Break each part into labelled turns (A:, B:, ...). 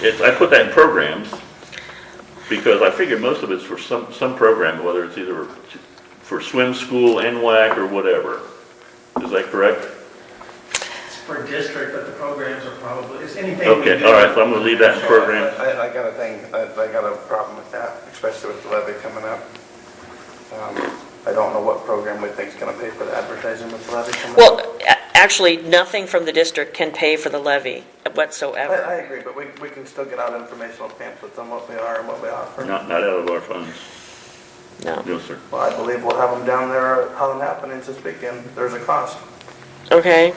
A: It's, I put that in programs, because I figure most of it's for some, some program, whether it's either for swim school, NWAC, or whatever. Is that correct?
B: It's per district, but the programs are probably, it's anything. we
A: Okay,
B: do.
A: all right, so I'm gonna leave that in programs.
C: I, I got a thing, I, I got a problem with that, especially with the levy coming up. Um, I don't know what program we think's gonna pay for the advertising with the levy coming up.
D: Well, a- actually, nothing from the district can pay for the levy
C: I,
D: whatsoever.
C: I agree, but we, we can still get out informational pamphlets on what we are and what we offer.
A: Not, not out of our funds,
D: No.
A: no, sir.
C: Well, I believe we'll have them down there, at Holland Happenings this weekend, there's a cost.
D: Okay.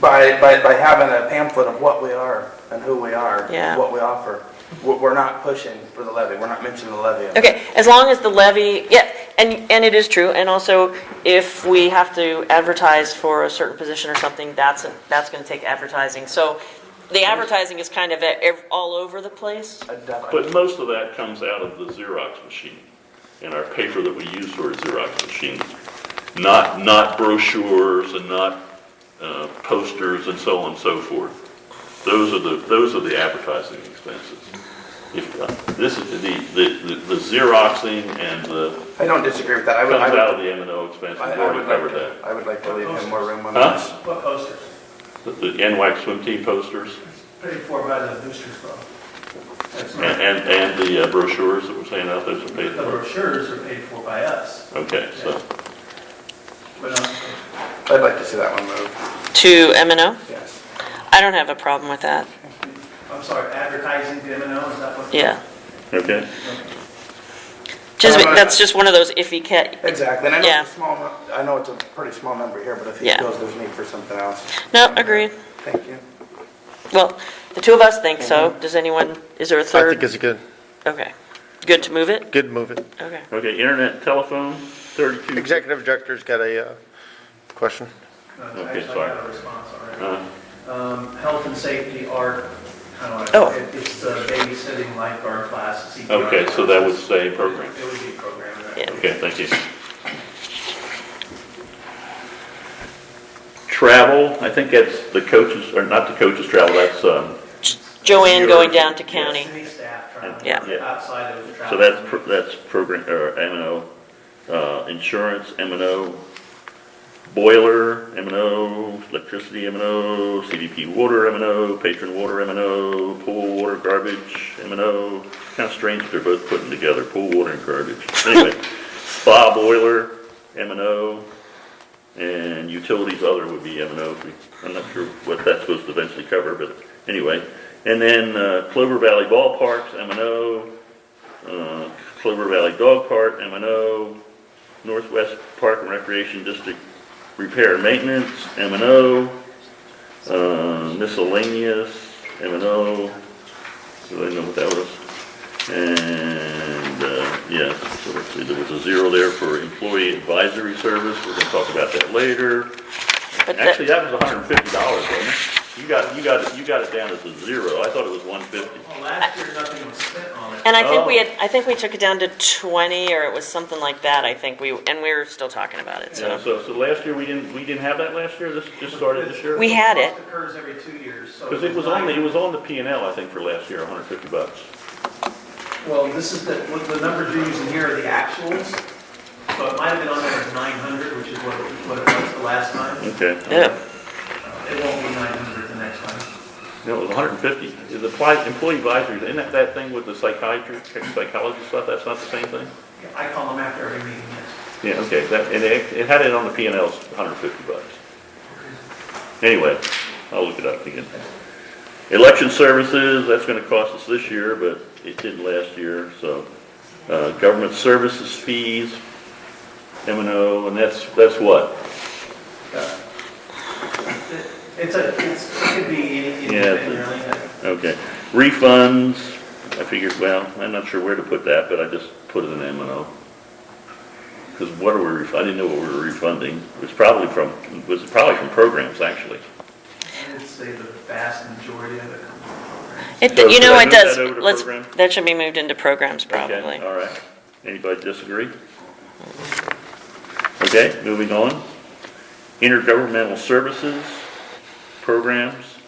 C: By, by, by having a pamphlet of what we are and who we are,
D: Yeah.
C: what we offer, we're, we're not pushing for the levy, we're not mentioning the levy.
D: Okay, as long as the levy, yeah, and, and it is true, and also if we have to advertise for a certain position or something, that's, that's gonna take advertising. So the advertising is kind of at ev- all over the place.
C: I definitely-
A: But most of that comes out of the Xerox machine, and our paper that we use for a Xerox machine. Not, not brochures and not, uh, posters and so on and so forth. Those are the, those are the advertising expenses. If, uh, this is, the, the, the- the Xeroxing and the,
C: I don't disagree with that, I
A: comes
C: would, I would
A: out of the M and O expenses,
C: I
A: we
C: I
A: already
C: would like
A: covered
C: to,
A: that.
C: I would like to leave him more room on
A: Huh?
C: this.
B: What posters?
A: The the NWAC swim team posters
B: Pretty four by the boosters club. That's
A: and,
B: right.
A: and, and the uh, brochures that we're saying out there, some
B: The
A: paper.
B: brochures are paid for by us,
A: Okay, so,
B: but not,
C: I'd like to see that one moved,
D: To M and O?
C: yes.
D: I don't have a problem with that,
B: I'm sorry, advertising to M and O, is that what?
D: yeah.
A: okay.
D: Just,
C: Um,
D: that's just one of those iffy cat,
C: Exactly, and I know
D: Yeah.
C: it's a small, nu- I know it's a pretty small number here, but if he
D: Yeah.
C: feels there's need for something else.
D: no, agreed.
C: Thank you.
D: Well, the two of us think so. Does anyone, is there a
E: Mm-hmm. I
D: third?
E: think it's a good,
D: Okay. Good to move it?
E: good move it.
D: Okay.
A: Okay, internet, telephone, thirty-two.
E: Executive Director's got a uh, question.
B: No,
A: Okay,
B: Actually, uh, I
A: sorry.
B: got a response already.
A: Uh,
B: Um, health and safety art, I don't
D: Oh.
B: know, it- it's the babysitting lifeguard class, CPR.
A: Okay, so that would stay program.
B: It would be programmed, right?
D: Yeah.
A: Okay, thank you. Travel, I think that's the coaches, or not the coaches' travel, that's, um,
D: Joanne going down to county.
B: City staff travel,
D: Yeah.
A: Yeah.
B: outside of the
A: so
B: travel.
A: that's, pro- that's program, or M and O. Uh, insurance, M and O. Boiler, M and O. Electricity, M and O. CDP water, M and O. Patron water, M and O. Pool water, garbage, M and O. Kind of strange that they're both putting together, pool water and garbage. Anyway, spa boiler, M and O. And utilities other would be M and O. I'm not sure what that's supposed to eventually cover, but anyway. And then uh, Clover Valley Ballparks, M and O. Uh, Clover Valley Dog Park, M and O. Northwest Park and Recreation District Repair and Maintenance, M and O. Uh, miscellaneous, M and O. Do I know what that was? And, uh, yeah, so let's see, there was a zero there for employee advisory service, we're gonna talk about that later.
D: But that-
A: Actually, that was hundred and fifty dollars, wasn't it? You got, you got, it- you got it down as a zero, I thought it was one fifty.
B: Well, last year, nothing was spent on it.
D: And I think we
A: Oh.
D: had, I think we took it down to 20, or it was something like that, I think we, and we were still talking about it,
A: Yeah,
D: so.
A: so, so last year, we didn't, we didn't have that last year, this just started this year?
D: We had it.
B: It occurs every two years, so.
A: Because it was on, the- it was on the P and L, I think, for last year, hundred fifty bucks.
B: Well, this is the, what the numbers you're using here are the actuals, so it might have been on there as 900, which is what, what it was the last time.
A: Okay.
D: Yeah,
B: It won't be 900 the next time.
A: No, it was hundred and fifty. The appli- employee advisory, isn't that that thing with the psychiatry, psychology stuff, that's not the same thing?
B: I call them after every meeting, yes.
A: Yeah, okay, that, and it, it had it on the P and L, hundred and fifty bucks. Anyway, I'll look it up again. Election services, that's gonna cost us this year, but it didn't last year, so. Uh, government services fees, M and O, and that's, that's what?
B: It's a, it's, it could be any, anything
A: Yeah.
B: really.
A: Okay, refunds, I figured, well, I'm not sure where to put that, but I just put it in M and O. Because what are we, ref- I didn't know what we were refunding, it was probably from, it was probably from programs, actually.
B: I would say the vast majority of it comes from programs.
D: it,
A: So
D: you
A: should
D: know,
A: I
D: it
A: move
D: does,
A: that over to
D: let's,
A: program?
D: that should be moved into programs probably.
A: Okay, all right, anybody disagree? Okay, moving on, intergovernmental services, programs,